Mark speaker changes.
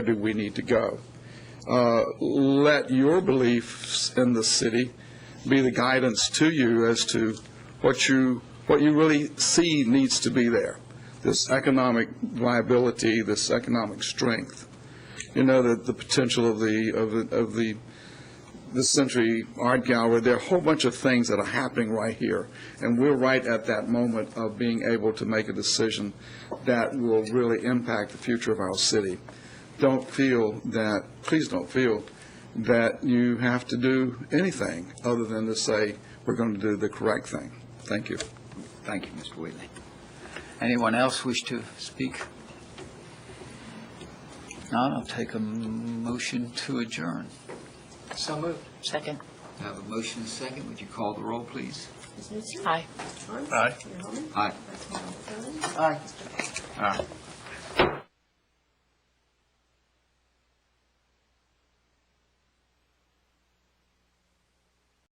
Speaker 1: do we need to go? Uh, Let your beliefs in the city be the guidance to you as to what you, what you really see needs to be there, this economic viability, this economic strength, you know, the, the potential of the, of the- of the, the Century Art Gallery, there are a whole bunch of things that are happening right here, and we're right at that moment of being able to make a decision that will really impact the future of our city don't feel that, please don't feel that you have to do anything other than to say, we're going to do the correct thing. Thank you.
Speaker 2: Thank you, Mr. Wheatley. Anyone else wish to speak? None, I'll take a m- motion to adjourn.
Speaker 3: So moved.
Speaker 4: Second.
Speaker 2: I have a motion and a second. Would you call the roll, please?
Speaker 5: Ms. Newsom?
Speaker 4: Aye.
Speaker 5: Ms. Harms?
Speaker 2: Aye.
Speaker 5: Mr. Holman?
Speaker 2: Aye.
Speaker 5: Councilwoman Fielding?
Speaker 3: Aye.
Speaker 5: Mr.
Speaker 2: Aye.
Speaker 5: Cox?